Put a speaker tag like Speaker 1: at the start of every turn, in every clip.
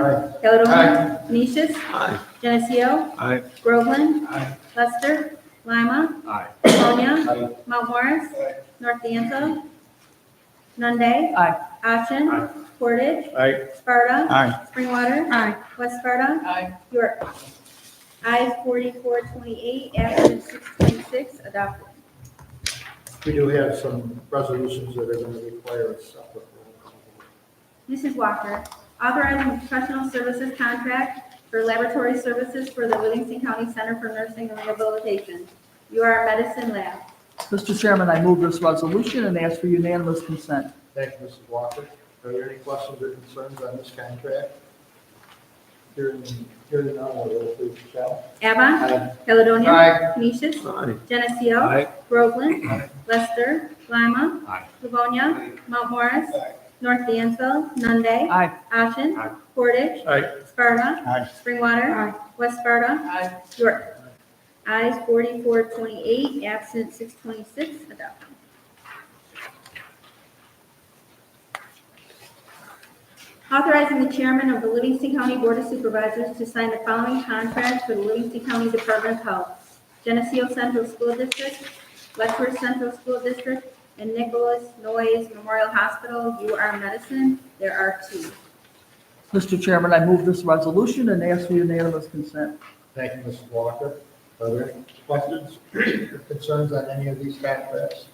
Speaker 1: Aye.
Speaker 2: Caldonia.
Speaker 1: Aye.
Speaker 2: Canisius.
Speaker 3: Aye.
Speaker 2: Geneseo.
Speaker 3: Aye.
Speaker 2: Groveland.
Speaker 1: Aye.
Speaker 2: Lester. Lima.
Speaker 3: Aye.
Speaker 2: Livonia.
Speaker 1: Aye.
Speaker 2: Mount Morris.
Speaker 1: Aye.
Speaker 2: North D'Anto. Nunde.
Speaker 4: Aye.
Speaker 2: Ashen.
Speaker 3: Aye.
Speaker 2: Portage.
Speaker 3: Aye.
Speaker 2: Sparta.
Speaker 3: Aye.
Speaker 2: Springwater.
Speaker 4: Aye.
Speaker 2: West Sparta.
Speaker 4: Aye.
Speaker 2: York. I forty-four twenty-eight, absent six twenty-six, adopted.
Speaker 1: We do have some resolutions that are going to require a separate roll call.
Speaker 2: Mrs. Walker, authorizing professional services contract for laboratory services for the Livingston County Center for Nursing and Rehabilitation. You are a medicine lab.
Speaker 4: Mr. Chairman, I move this resolution and ask for unanimous consent.
Speaker 1: Thank you, Mrs. Walker. Are there any questions or concerns on this contract? Hearing, hearing none, I'll roll please, Michelle.
Speaker 2: Avon,
Speaker 1: Aye.
Speaker 2: Caledonia.
Speaker 1: Aye.
Speaker 2: Canisius,
Speaker 3: Aye.
Speaker 2: Geneseo.
Speaker 3: Aye.
Speaker 2: Groveland.
Speaker 1: Aye.
Speaker 2: Lester. Lima.
Speaker 3: Aye.
Speaker 2: Livonia. Mount Morris.
Speaker 1: Aye.
Speaker 2: North Dansville. Nunde.
Speaker 4: Aye.
Speaker 2: Ashen.
Speaker 3: Aye.
Speaker 2: Portage.
Speaker 3: Aye.
Speaker 2: Sparta.
Speaker 3: Aye.
Speaker 2: Springwater. West Sparta.
Speaker 4: Aye.
Speaker 2: York. Ayes forty-four twenty-eight, absent six twenty-six, adopted. Authorizing the chairman of the Livingston County Board of Supervisors to sign the following contract for the Livingston County Department of Health. Geneseo Central School District, Lexington Central School District, and Nicholas Noyes Memorial Hospital, You Are Medicine. There are two.
Speaker 4: Mr. Chairman, I move this resolution and ask for unanimous consent.
Speaker 1: Thank you, Mrs. Walker. Are there any questions or concerns on any of these contracts?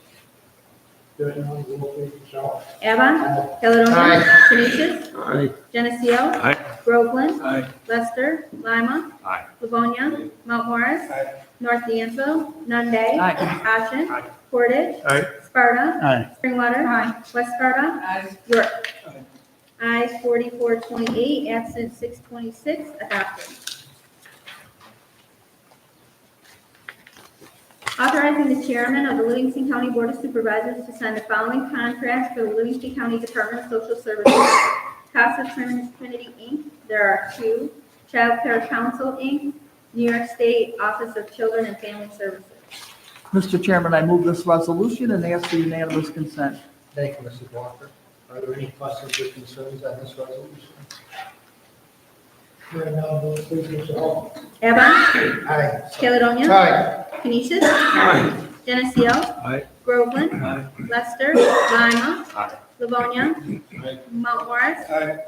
Speaker 1: Hearing none, roll please, Michelle.
Speaker 2: Avon,
Speaker 1: Aye.
Speaker 2: Caledonia,
Speaker 1: Aye.
Speaker 2: Canisius,
Speaker 3: Aye.
Speaker 2: Geneseo,
Speaker 3: Aye.
Speaker 2: Groveland,
Speaker 3: Aye.
Speaker 2: Lester, Lima,
Speaker 3: Aye.
Speaker 2: Livonia, Mount Morris,
Speaker 1: Aye.
Speaker 2: North D'Anto, Nunde.
Speaker 4: Aye.
Speaker 2: Ashen.
Speaker 3: Aye.
Speaker 2: Portage.
Speaker 3: Aye.
Speaker 2: Sparta.
Speaker 3: Aye.
Speaker 2: Springwater. West Sparta.
Speaker 4: Aye.
Speaker 2: York. Ayes forty-four twenty-eight, absent six twenty-six, adopted. Authorizing the chairman of the Livingston County Board of Supervisors to sign the following contracts for the Livingston County Department of Social Services. Casa Trin- Trinity, Inc., there are two. Child Care Council, Inc., New York State Office of Children and Family Services.
Speaker 4: Mr. Chairman, I move this resolution and ask for unanimous consent.
Speaker 1: Thank you, Mrs. Walker. Are there any questions or concerns on this resolution? Hearing none, roll please, Michelle.
Speaker 2: Evan,
Speaker 1: Aye.
Speaker 2: Caledonia.
Speaker 1: Aye.
Speaker 2: Canisius. Geneseo.
Speaker 3: Aye.
Speaker 2: Groveland.
Speaker 3: Aye.
Speaker 2: Lester. Lima.
Speaker 3: Aye.
Speaker 2: Livonia.
Speaker 1: Aye.
Speaker 2: Mount Morris.
Speaker 1: Aye.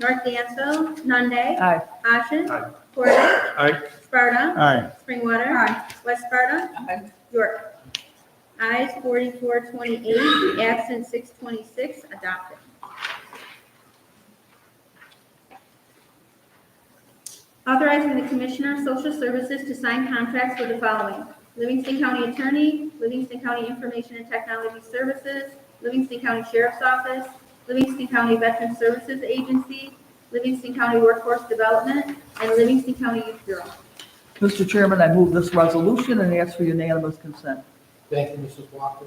Speaker 2: North Dansville. Nunde.
Speaker 4: Aye.
Speaker 2: Ashen.
Speaker 3: Aye.
Speaker 2: Portage.
Speaker 3: Aye.
Speaker 2: Sparta.
Speaker 3: Aye.
Speaker 2: Springwater. West Sparta.
Speaker 4: Aye.
Speaker 2: York. Ayes forty-four twenty-eight, absent six twenty-six, adopted. Authorizing the Commissioner of Social Services to sign contracts for the following. Livingston County Attorney, Livingston County Information and Technology Services, Livingston County Sheriff's Office, Livingston County Veteran Services Agency, Livingston County Workforce Development, and Livingston County Youth Bureau.
Speaker 4: Mr. Chairman, I move this resolution and ask for unanimous consent.
Speaker 1: Thank you, Mrs. Walker.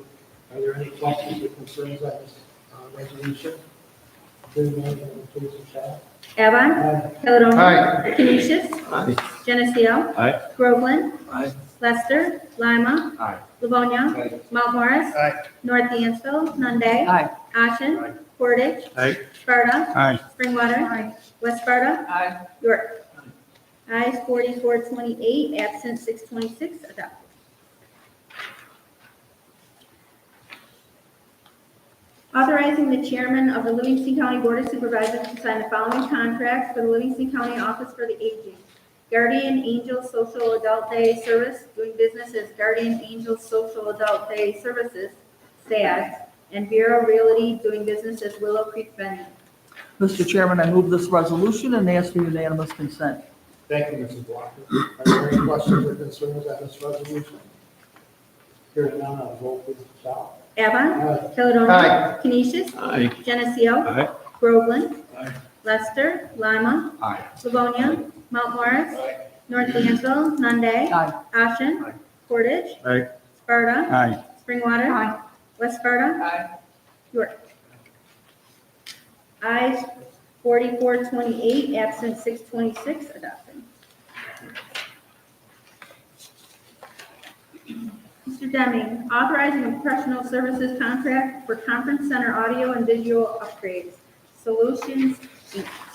Speaker 1: Are there any questions or concerns on this uh, resolution? Hearing none, roll please, Michelle.
Speaker 2: Avon,
Speaker 1: Aye.
Speaker 2: Caledonia, Canisius,
Speaker 3: Aye.
Speaker 2: Geneseo.
Speaker 3: Aye.
Speaker 2: Groveland.
Speaker 3: Aye.
Speaker 2: Lester. Lima.
Speaker 3: Aye.
Speaker 2: Livonia.
Speaker 1: Aye.
Speaker 2: Mount Morris.
Speaker 1: Aye.
Speaker 2: North Dansville. Nunde.
Speaker 4: Aye.
Speaker 2: Ashen. Portage.
Speaker 3: Aye.
Speaker 2: Sparta.
Speaker 3: Aye.
Speaker 2: Springwater. West Sparta.
Speaker 4: Aye.
Speaker 2: York. Ayes forty-four twenty-eight, absent six twenty-six, adopted. Authorizing the chairman of the Livingston County Board of Supervisors to sign the following contracts for the Livingston County Office for the Aging. Guardian Angel Social Adult Day Service, doing business as Guardian Angel Social Adult Day Services, SAS, and Bureau Realty, doing business as Willow Creek Venue.
Speaker 4: Mr. Chairman, I move this resolution and ask for unanimous consent.
Speaker 1: Thank you, Mrs. Walker. Are there any questions or concerns on this resolution? Hearing none, I'll roll please, Michelle.
Speaker 2: Avon.
Speaker 1: Aye.
Speaker 2: Caledonia. Canisius.
Speaker 3: Aye.
Speaker 2: Geneseo.
Speaker 3: Aye.
Speaker 2: Groveland.
Speaker 3: Aye.
Speaker 2: Lester. Lima.
Speaker 3: Aye.
Speaker 2: Livonia. Mount Morris.
Speaker 1: Aye.
Speaker 2: North D'Anville. Nunde.
Speaker 4: Aye.
Speaker 2: Ashen.
Speaker 3: Aye.
Speaker 2: Portage.
Speaker 3: Aye.
Speaker 2: Sparta.
Speaker 3: Aye.
Speaker 2: Springwater. West Sparta.
Speaker 4: Aye.
Speaker 2: York. Ayes forty-four twenty-eight, absent six twenty-six, adopted. Mr. Deming, authorizing a professional services contract for conference center audio and visual upgrades, Solutions Inc.